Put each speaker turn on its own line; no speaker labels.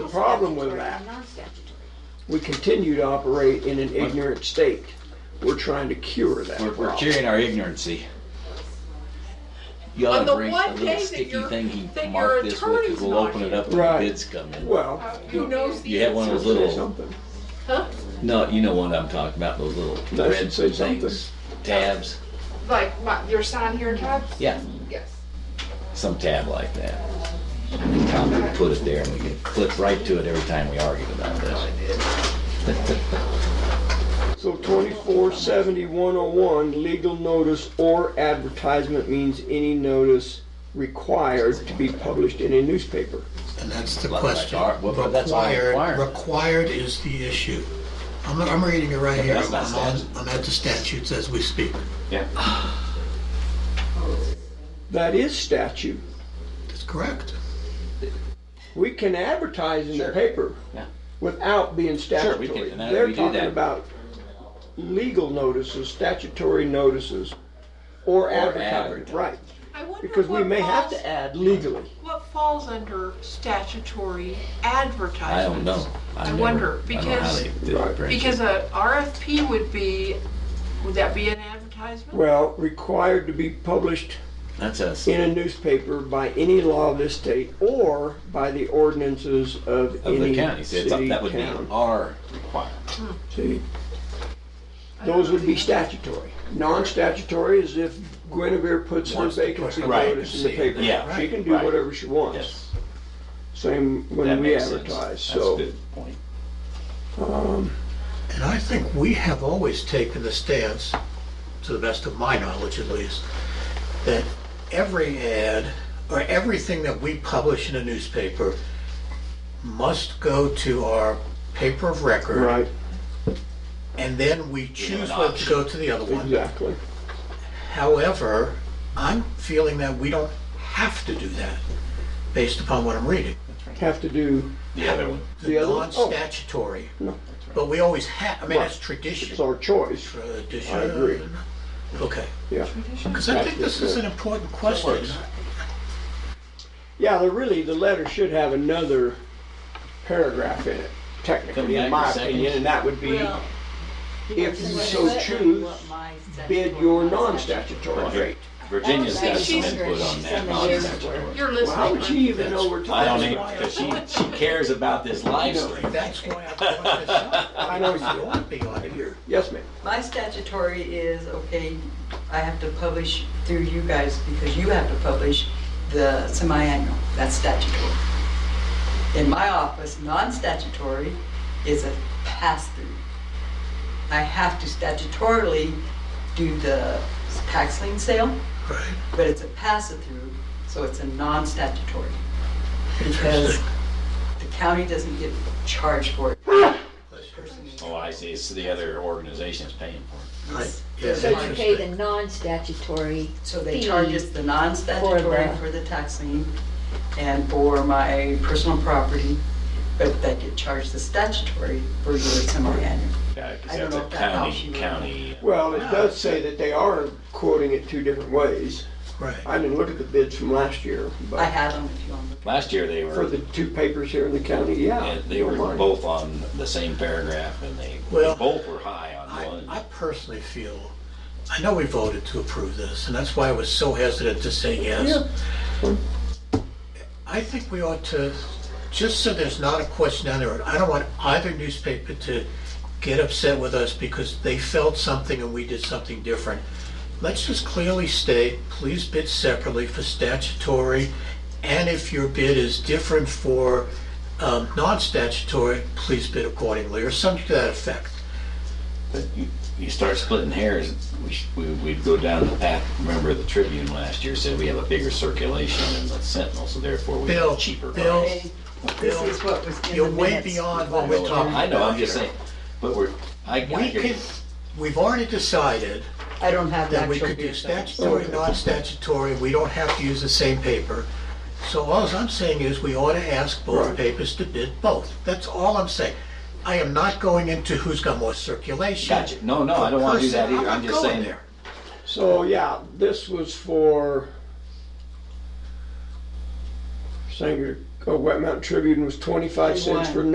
problem with
statutory
that.
and Non-statutory.
We continue to operate in an ignorant state. We're trying to cure that
We're, we're
problem.
curing our ignorancy. You
On
ought
the
to bring
one day
a little
that
sticky
your-
thing he
that
marked
your
this with, because
attorney's
we'll
not
open it
here.
up when the
Right.
bids come in.
Well,
Who knows the
You have one
answer?
of those
should say
little,
something.
Huh?
no, you know what I'm talking about, those little
That
red
should say something.
things, tabs.
Like my, your sign here, Todd?
Yeah,
Yes.
some tab like that. Tom would put it there and we can click right to it every time we argued about this.
So twenty-four seventy one oh one, legal notice or advertisement means any notice required to be published in a newspaper.
And that's the
Well,
question.
that's our- well, that's our
Required,
requirement.
required is the issue. I'm, I'm reading it right
Yeah,
here.
that's
I'm
not
on-
statute.
I'm at the statutes as we speak.
That is statute.
That's correct.
We can advertise in the
Sure.
paper
Yeah.
without being
Sure, we can,
statutory.
and that-
They're
we do
talking
that.
about legal notices, statutory notices, or advertising,
advertising.
right?
I wonder
Because we
what
may have
falls-
to add legally.
What falls under statutory
I don't
advertisements?
know. I've
I
never-
wonder,
I don't know how
because-
they did
Right.
it.
Because a RFP would be, would that be an advertisement?
Well, required to be published
That's us.
in a newspaper by any law of this state or by the ordinances of
Of
any
the county, so it's,
city,
that would be
town.
our requirement.
See? Those would be statutory. Non-statutory is if Guinevere puts her
Wants to put
vacancy
it right
notice in the
and see it.
paper.
Yeah.
She can do
Right.
whatever she wants.
Yes,
Same
that
when we
makes sense.
advertise,
That's
so.
a good point.
And I think we have always taken the stance, to the best of my knowledge at least, that every ad or everything that we publish in a newspaper must go to our paper of record.
Right,
And then we choose
an
what to
option.
go to the other one.
exactly.
However, I'm feeling that we don't have to do that, based upon what I'm reading.
Have to do,
The other one.
The other one? Oh.
Non-statutory.
No.
But we always have, I mean,
Right.
that's
it's
tradition.
our choice,
Tradition.
I agree.
Okay,
yeah.
because I think this is an important question.
Yeah, the really, the letter should have another paragraph in it, technically, in
Come back
my
in a
opinion,
second.
and that would be
Well,
if you so choose, bid your non-statutory rate.
Virginia's
I
got
don't
some
think
input
she's-
on that.
she's
not
in the
that
years
one.
You're
Well, how would
listening.
she even know we're
I don't
talking
even,
about?
because she, she cares about this lifestyle.
That's why I brought this up.
I know
It
you
ought to be on here.
Yes, ma'am.
My statutory is, okay, I have to publish through you guys because you have to publish the semi-annual. That's statutory. In my office, non-statutory is a pass-through. I have to statutorily do the tax lien sale,
Right.
but it's a pass-through, so it's a non-statutory. Because the county doesn't get charged for it.
Oh, I see, it's the other organization's paying for
I- yeah,
So you
that's
pay the
interesting.
non-statutory
So they
fee.
charge us the non-statutory
For the-
for the tax lien and for my personal property, but they get charged the statutory for your semi-annual.
it. Yeah,
I
because
don't
that's
know
a
if that helps
county,
you.
county.
Well, it does say that they are quoting it two different ways.
Right.
I didn't look at the bids from last year,
I
but
have them if you want to.
Last year they
for
were,
the two papers here in the county, yeah.
yeah, they were
mine.
both on the same paragraph and they,
Well,
both were high
I,
on
I
one.
personally feel, I know we voted to approve this, and that's why I was so hesitant to say yes.
Yeah.
I think we ought to, just so there's not a question down the road, I don't want either newspaper to get upset with us because they felt something and we did something different. Let's just clearly state, please bid separately for statutory, and if your bid is different for um, non-statutory, please bid accordingly, or something to that effect.
But you- You start splitting hairs, we sh- we, we'd go down the path, remember the Tribune last year said we have a bigger circulation than the Sentinel, so therefore we have
Bill,
a cheaper price.
Bill,
This
Bill,
is what was in the
you're way
minutes.
beyond what
I
we're
know,
talking about
I know, I'm just
here.
saying, but we're, I, I
We
hear you.
could, we've already decided
I don't have the
that
actual.
we could do
bid, though.
statutory, non-statutory, we don't have to use the same paper. So all I'm saying is we ought to ask both
Right.
papers to bid both. That's all I'm saying. I am not going into who's got more circulation.
Gotcha. No, no, I don't wanna do that
Person,
either. I'm
not
just
going
saying-
there.
So, yeah, this was for Sanger uh, Wet Mountain Tribune was twenty-five cents for